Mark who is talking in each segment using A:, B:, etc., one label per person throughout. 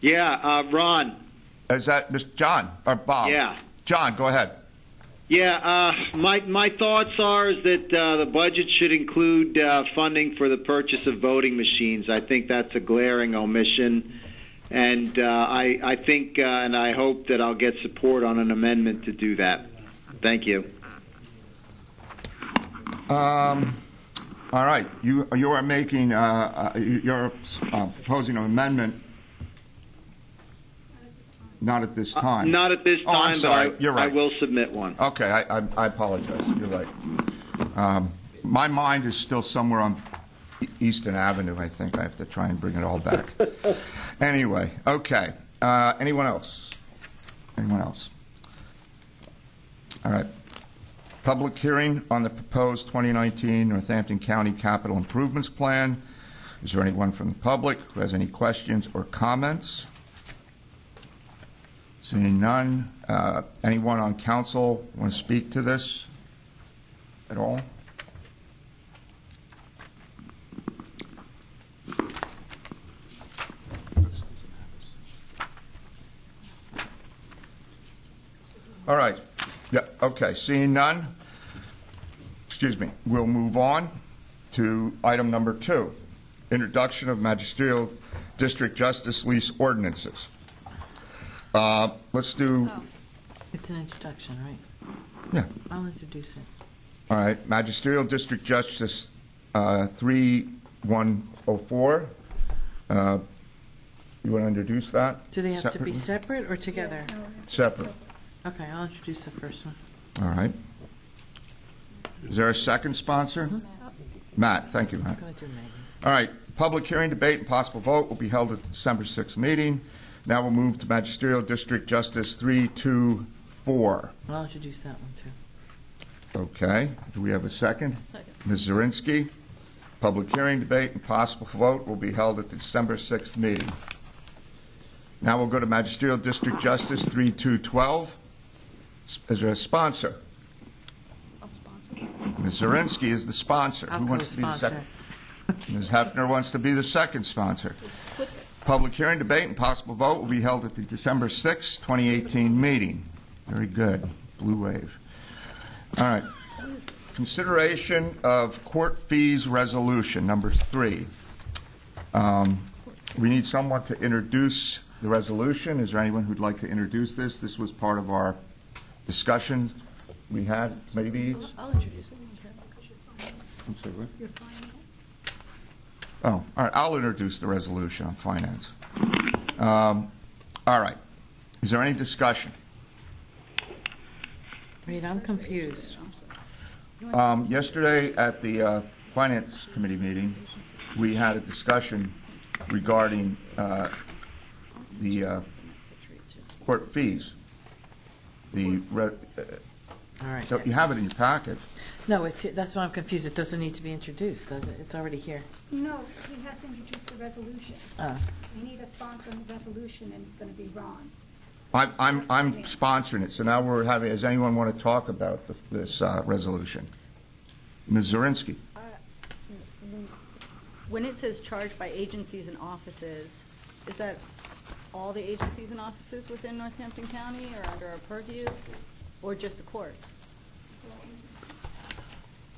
A: Yeah, uh, Ron.
B: Is that Mr. John or Bob?
A: Yeah.
B: John, go ahead.
A: Yeah, uh, my my thoughts are is that uh, the budget should include uh, funding for the purchase of voting machines. I think that's a glaring omission, and uh, I I think uh, and I hope that I'll get support on an amendment to do that. Thank you.
B: All right, you you are making uh, uh, you- you're uh, proposing an amendment. Not at this time.
A: Uh, Not at this time,
B: Oh, I'm sorry.
A: but I,
B: You're right.
A: I will submit one.
B: Okay, I, I, I apologize. You're right. Um, my mind is still somewhere on E- Easton Avenue. I think I have to try and bring it all back. anyway, okay. Uh, anyone else? Anyone else? All right. Public hearing on the proposed 2019 Northampton County Capital Improvements Plan. Is there anyone from the public who has any questions or comments? Seeing none, uh, anyone on council want to speak to this at all? All right, yeah, okay, seeing none, excuse me, we'll move on to item number two, introduction of magisterial district justice lease ordinances. Uh, Let's do,
C: It's an introduction, right?
B: yeah,
C: I'll introduce it.
B: all right, magisterial district justice uh, 3104. Uh, You want to introduce that?
C: Do they have to be
B: separately?
C: separate or together?
B: Separate,
C: Okay, I'll introduce the first one.
B: all right. Is there a second sponsor?
C: Uh-huh.
B: Matt, thank you, Matt.
C: I'm going to do Megan.
B: All right, public hearing, debate, and possible vote will be held at the December 6th meeting. Now we'll move to magisterial district justice 324.
C: I'll introduce that one, too.
B: Okay, do we have a second? Second. Ms. Zirinsky, public hearing, debate, and possible vote will be held at the December 6th meeting. Now we'll go to Magisterial District Justice 3212. S- Is there a sponsor? Ms. Zirinsky is the sponsor. Who
C: I'll
B: wants to be the
C: co-sponsor.
B: second? Ms. Hefner wants to be the second sponsor. Public hearing, debate, and possible vote will be held at the December 6th, 2018 meeting. Very good, blue wave. All right. Consideration of court fees resolution, number three. Um, We need someone to introduce the resolution. Is there anyone who'd like to introduce this? This was part of our discussion we had, maybe?
D: I'll introduce it.
B: I'm sorry, what? Oh, all right, I'll introduce the resolution on finance. Um, All right. Is there any discussion?
C: Reed, I'm confused.
B: Um, Yesterday, at the uh, Finance Committee meeting, we had a discussion regarding uh, the uh, court fees. The, re- uh,
C: All right.
B: so you have it in your packet.
C: No, it's, here. that's why I'm confused. It doesn't need to be introduced, does it? It's already here.
D: No, he has to introduce the resolution.
C: Oh.
D: We need a sponsor on the resolution, and it's going to be Ron.
B: I'm- I'm I'm sponsoring it, so now we're having, does anyone want to talk about the- this uh, resolution? Ms. Zirinsky?
E: When it says charged by agencies and offices, is that all the agencies and offices within Northampton County or under our purview? Or just the courts?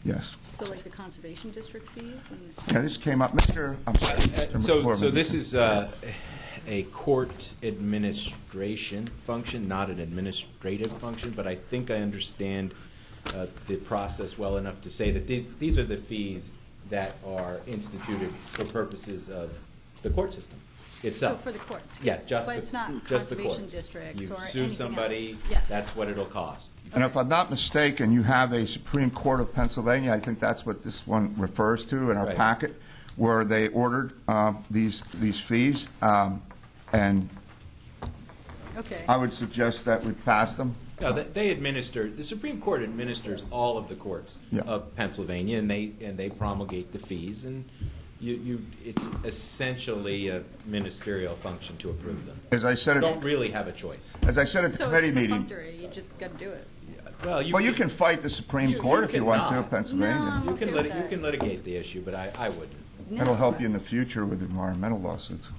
B: Yes.
E: So like the conservation district fees and?
B: Yeah, this came up, Mr., I'm sorry. Mr.
F: Uh, So, so
B: McCormick.
F: this is uh, a court administration function, not an administrative function, but I think I understand uh, the process well enough to say that these, these are the fees that are instituted for purposes of the court system
E: So
F: itself.
E: for the courts?
F: Yeah, just the, just the courts.
E: But it's not conservation districts or anything else?
F: You sue somebody,
E: Yes.
F: that's what it'll cost.
B: And if I'm not mistaken, you have a Supreme Court of Pennsylvania, I think that's what this one refers to in our
F: Right.
B: packet, where they ordered uh, these, these fees, Um, and
E: Okay.
B: I would suggest that we pass them.
F: No, they- they administer, the Supreme Court administers all of the courts
B: Yeah.
F: of Pennsylvania, and they, and they promulgate the fees, and you, you, it's essentially a ministerial function to approve them.
B: As I said,
F: Don't
B: at-
F: really have a choice.
B: as I said at the
E: So it's
B: committee meeting,
E: perfunctory, You just got to do it.
F: Well,
B: well, you can fight the Supreme
F: You-
B: Court
F: you
B: if you want to,
F: cannot.
B: Pennsylvania.
E: No.
F: You can
E: Okay
F: lit,
E: with
F: you
E: that.
F: can litigate the issue, but I, I wouldn't.
E: No.
B: That'll help you in the future with environmental lawsuits.